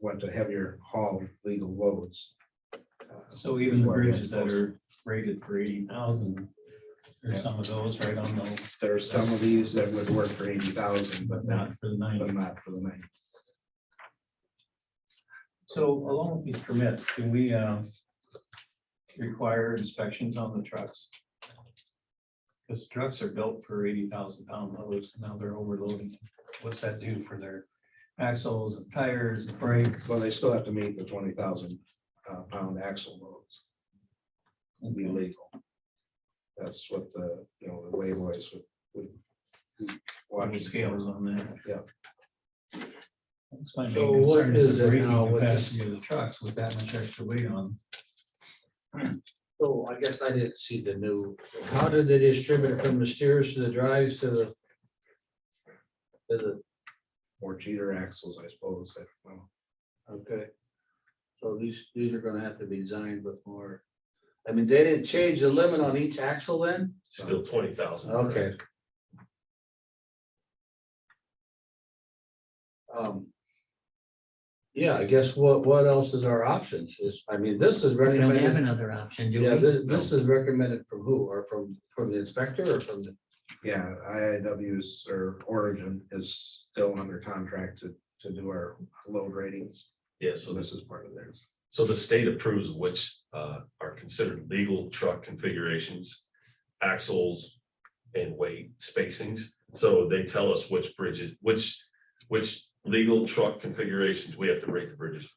went to heavier haul legal loads. Uh, So even the bridges that are rated for eighty thousand, there's some of those right on the, There are some of these that would work for eighty thousand, but but not, not for the ninety. but not for the nine. So along with these permits, do we uh, require inspections on the trucks? Because trucks are built for eighty thousand pound loads, now they're overloading. What's that do for their axles and tires and brakes? Well, they still have to meet the twenty thousand uh, pound axle loads, to be legal. That's what the, you know, the way boys would. would What watch. are scales on that? Yeah. That's my main So what concern is is the it braking now with this- capacity of the trucks with that much extra weight on. So I guess I didn't see the new. How did they distribute it from the steers to the drives to the? To the, Or cheater axles, I suppose. I don't know. okay. So these, these are gonna have to be designed with more. I mean, they didn't change the limit on each axle then? Still twenty thousand. Okay. Um. Yeah, I guess what, what else is our options? Is, I mean, this is We don't have recommended. another option, do we? Yeah, this, this is recommended from who? Or from, from the inspector or from the? Yeah, IIW's or Origin is still under contract to, to do our load ratings. Yeah, So so, this is part of theirs. so the state approves which uh are considered legal truck configurations, axles and weight spacings. So they tell us which bridges, which, which legal truck configurations we have to rate the bridges.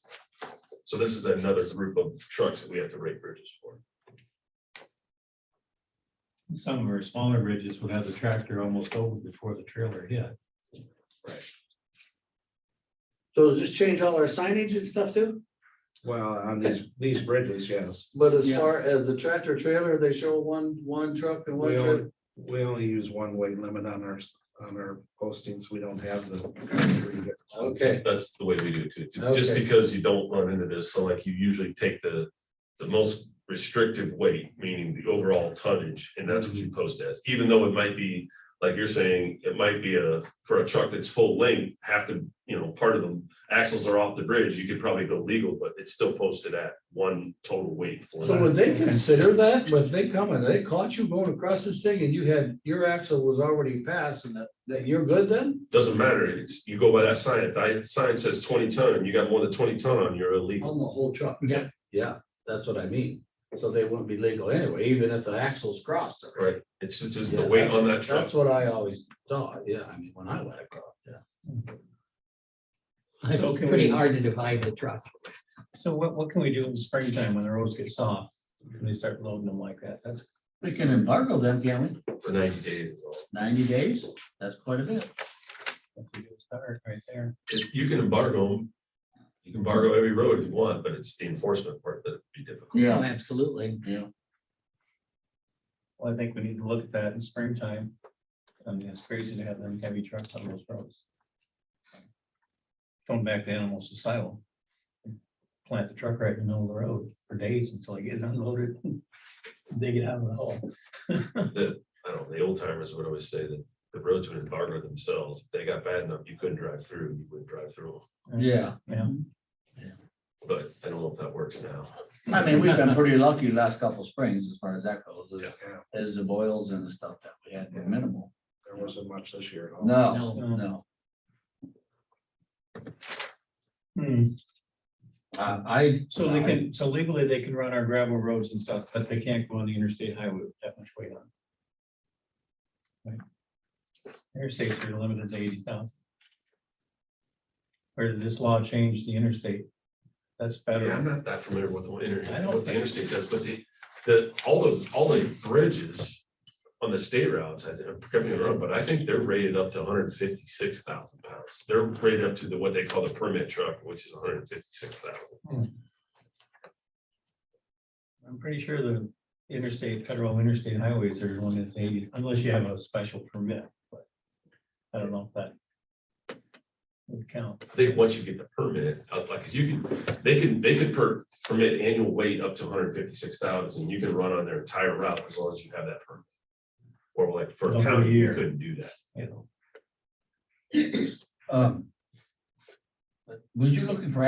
So this is another group of trucks that we have to rate bridges for. Some of our smaller bridges would have the tractor almost over before the trailer hit. So just change all our signage and stuff too? Well, on these, these bridges, yes, But as Yeah. far as the tractor trailer, they show one, one truck and one We trailer. only, we only use one weight limit on our, s- on our postings. We don't have the. Okay, That's the way we do it too, ju- just Okay. because you don't run into this, so like you usually take the, the most restrictive weight, meaning the overall tonnage, and that's what you Mm-hmm. post as, even though it might be, like you're saying, it might be a, for a truck that's full length, half the, you know, part of the axles are off the bridge, you could probably go legal, but it's still posted at one total weight. for so that. would they consider that, when they come and they caught you going across this thing and you had, your axle was already passed and that, that you're good then? Doesn't matter, it's, you go by that sign, if that sign says twenty ton, and you got more than twenty ton on, you're illegal. On the whole truck? Yeah. Yeah, that's what I mean, so they wouldn't be legal anyway, even if the axle's crossed. already. Right, it's just, it's the Yeah, weight on that truck. That's what I always thought, yeah, I mean, when I went across, yeah. So It's can pretty we- hard to divide the truck. So what, what can we do in the springtime when the roads get soft? and they start loading them like that? That's, We can embargo them, can we? For ninety days is all. Ninety days, that's quite a bit. that's a good start right there. if you can embargo them, you can embargo every road you want, but it's the enforcement part that'd be difficult. Yeah. Oh, Absolutely. Yeah. Well, I think we need to look at that in springtime. I mean, it's crazy to have them heavy trucks on those roads. Going back to animals asylum. Plant the truck right in the middle of the road for days until I get it unloaded. Dig it out of the hole. I don't, know. the old timers would always say that the roads would embargo themselves. If they got bad enough, you couldn't drive through, you wouldn't drive through. 'em. Yeah. Yeah. But I don't know if that works now. I mean, we've been pretty lucky the last couple springs as far as that goes, Yeah. as, as the boils and the stuff that we had were minimal. There wasn't much this year. at all. No, No. no. Hmm, Uh, I. So they can, so legally they can run our gravel roads and stuff, but they can't go on the interstate highway with that much weight on. it. Right? Interstates are limited to eighty thousand. Or does this law change the interstate? That's Yeah, I'm better. not that familiar with the I interstate, don't what the think- interstate does, but the, the, all the, all the bridges on the state routes, I think, I'm correct me if I'm wrong, but I think they're rated up to hundred and fifty-six thousand pounds. They're rated up to the, what they call the permit truck, which is hundred and fifty-six thousand. I'm pretty sure the interstate, federal interstate highways are one that's eighty, unless you have a special permit, but. I don't know if that. Would count. I think once you get the permit, uh, like if you can, they can, they could per, permit annual weight up to hundred fifty-six thousand, and you can run on their entire route as long as you have that permit. Or like for The a whole county, you year. couldn't do that. You know. Um. Was you looking for